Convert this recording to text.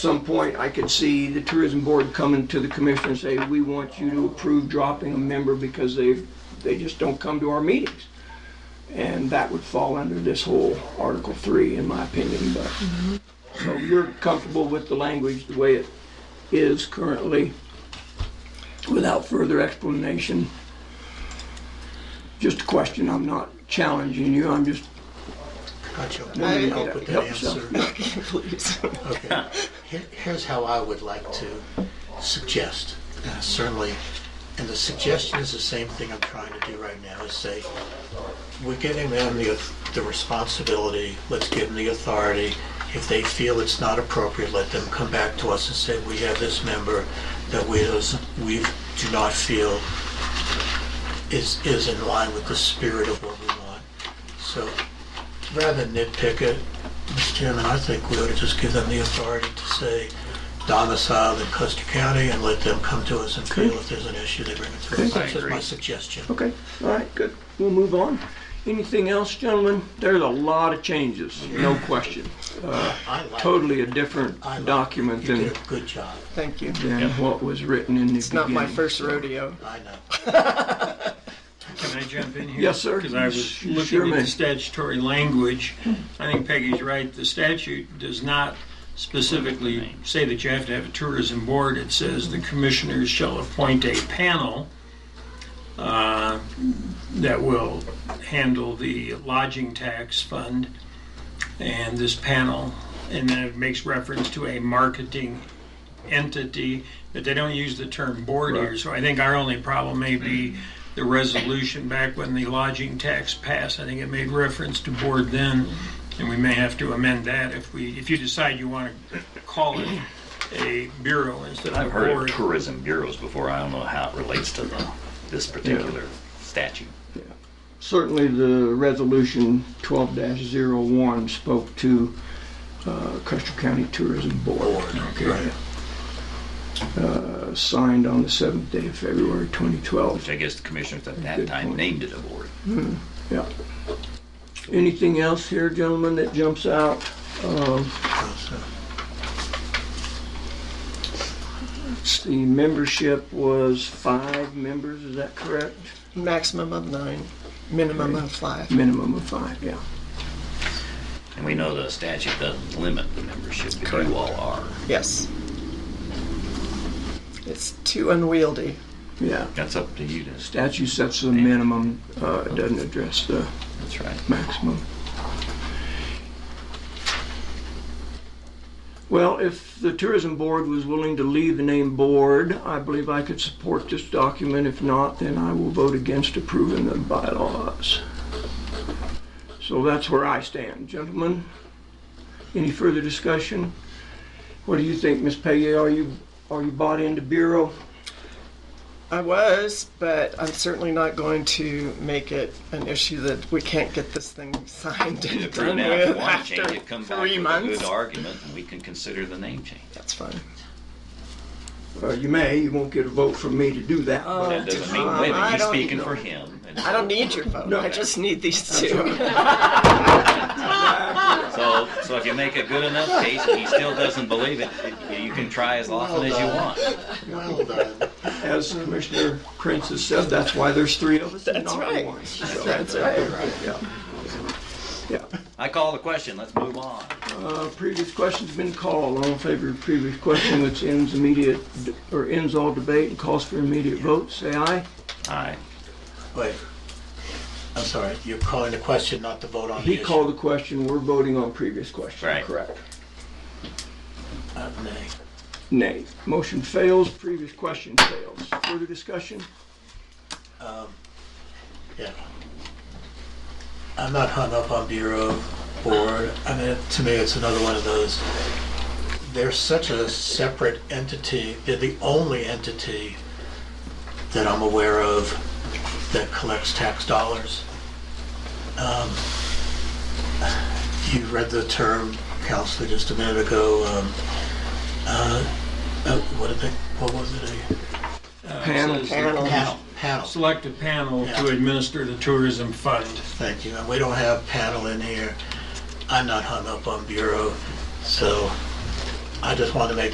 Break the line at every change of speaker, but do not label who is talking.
some point, I could see the tourism board coming to the commission and say, we want you to approve dropping a member because they, they just don't come to our meetings. And that would fall under this whole Article Three, in my opinion, but, so you're comfortable with the language the way it is currently, without further explanation? Just a question, I'm not challenging you, I'm just
Got you.
No, no, no.
I'll put that
Help yourself.
answer.
Please.
Okay. Here- Here's how I would like to suggest, uh, certainly, and the suggestion is the same thing I'm trying to do right now, is say, we're giving them the, auth- the responsibility, let's give them the authority. If they feel it's not appropriate, let them come back to us and say, we have this member that we, does- we do not feel is, is in line with the spirit of what we want. So rather than nitpick it, Mr. Chairman, I think we ought to just give them the authority to say domicile in Custer County and let them come to us and feel if there's an issue, they bring it to us.
Okay. I Oh,
That's just my
agree.
suggestion.
Okay, all right, good. We'll move on. Anything else, gentlemen? There's a lot of changes, no question. Uh,
I like it.
Totally a different
I like it.
document
You
than,
did a good job.
Thank you.
than what was written in the beginning.
It's not my first rodeo.
I know.
Can I jump in here?
Yes, sir.
Because I was
You sure
looking at
may.
the statutory language. I think Peggy's right. The statute does not specifically say that you have to have a tourism board. It says the commissioners shall appoint a panel uh, that will handle the lodging tax fund. And this panel, and then it makes reference to a marketing entity, but they don't use the term board here. So I think our only problem may be the resolution back when the lodging tax passed. I think it made reference to board then, and we may have to amend that if we, if you decide you want to call it a bureau instead
I've
of a
heard of
board.
tourism bureaus before. I don't know how it relates to the, this particular statute.
Certainly, the resolution 12-01 spoke to uh, Custer County Tourism Board,
Right.
uh, signed on the 7th day of February 2012.
Which I guess the commissioners at that
Good
time
point.
named it a board.
Yeah. Anything else here, gentlemen, that jumps out? Um,
So,
The membership was five members, is that correct?
Maximum of nine, minimum of five.
Minimum of five, yeah.
And we know the statute doesn't limit the membership, but you all are.
Yes. It's too unwieldy.
Yeah.
That's up to you to,
Statute sets the minimum, uh, it doesn't address the
that's right.
maximum. Well, if the tourism board was willing to leave the name board, I believe I could support this document. If not, then I will vote against approving the bylaws. So that's where I stand. Gentlemen, any further discussion? What do you think, Ms. Payette? Are you, are you bought into Bureau?
I was, but I'm certainly not going to make it an issue that we can't get this thing signed
You
and
approve
done
now, if you
with
want to change
after
it, come back with
three
a good
months.
argument and we can consider the name change.
That's fine.
Uh, you may, you won't get a vote from me to do that. but-
That doesn't mean,
Um,
wait a minute,
I
he's
don't
speaking
know.
for him. and
I don't need your vote.
No.
I just need these two.
So, so if you make a good enough case and he still doesn't believe it, it- you can try as often as you
Well
want.
done.
As Commissioner Prince has said, that's why there's three of us and
That's
not
right.
one. So,
That's right.
yeah. Yeah.
I call the question, let's move on.
Uh, Previous question's been called. All in favor of previous question, which ends immediate, or ends all debate and calls for immediate vote, say aye.
Aye.
Wait. I'm sorry, you're calling the question, not the vote on the
He
issue.
called the question, we're voting on previous question.
Right.
Correct.
Uh, nay.
Nay. Motion fails, previous question fails. Further discussion?
Yeah. I'm not hung up on Bureau Board. I mean, to me, it's another one of those. They're such a separate entity. They're the only entity that I'm aware of that collects tax dollars. Um, you read the term, Counselor, just a minute ago. Um, uh, uh, what did they? What was it? A
Uh,
Panel.
says
Panel.
panel. Panel.
Select a panel to administer the tourism fund.
Thank you. And we don't have panel in here. I'm not hung up on bureau, so I just wanted to make